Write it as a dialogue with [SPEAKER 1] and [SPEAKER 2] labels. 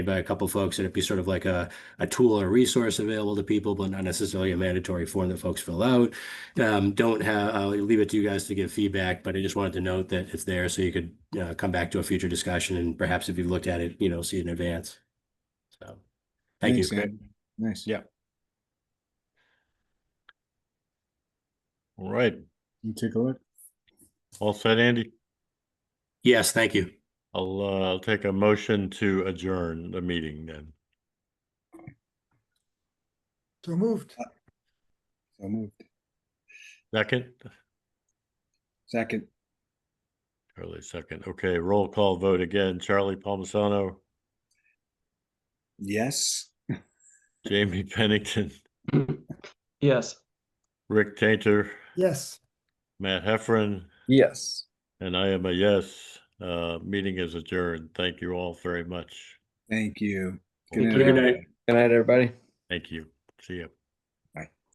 [SPEAKER 1] by a couple folks, and it'd be sort of like a, a tool or resource available to people, but not necessarily a mandatory form that folks fill out. Um, don't have, I'll leave it to you guys to give feedback, but I just wanted to note that it's there so you could uh, come back to a future discussion and perhaps if you've looked at it, you know, see it in advance. So, thank you.
[SPEAKER 2] Thanks, Andy. Nice.
[SPEAKER 3] Yeah. All right,
[SPEAKER 2] You take a look.
[SPEAKER 3] all set, Andy.
[SPEAKER 1] Yes, thank you.
[SPEAKER 3] I'll, uh, I'll take a motion to adjourn the meeting then.
[SPEAKER 4] So moved.
[SPEAKER 2] So moved.
[SPEAKER 3] Second,
[SPEAKER 2] Second,
[SPEAKER 3] Charlie, second. Okay, roll call vote again. Charlie Palmisano,
[SPEAKER 2] yes.
[SPEAKER 3] Jamie Pennington,
[SPEAKER 5] Yes.
[SPEAKER 3] Rick Tainter,
[SPEAKER 4] Yes.
[SPEAKER 3] Matt Heffron,
[SPEAKER 2] Yes.
[SPEAKER 3] and I am a yes. Uh, meeting is adjourned. Thank you all very much.
[SPEAKER 2] Thank you.
[SPEAKER 3] Thank
[SPEAKER 1] Good night.
[SPEAKER 6] Good night, everybody.
[SPEAKER 3] Thank you. See you.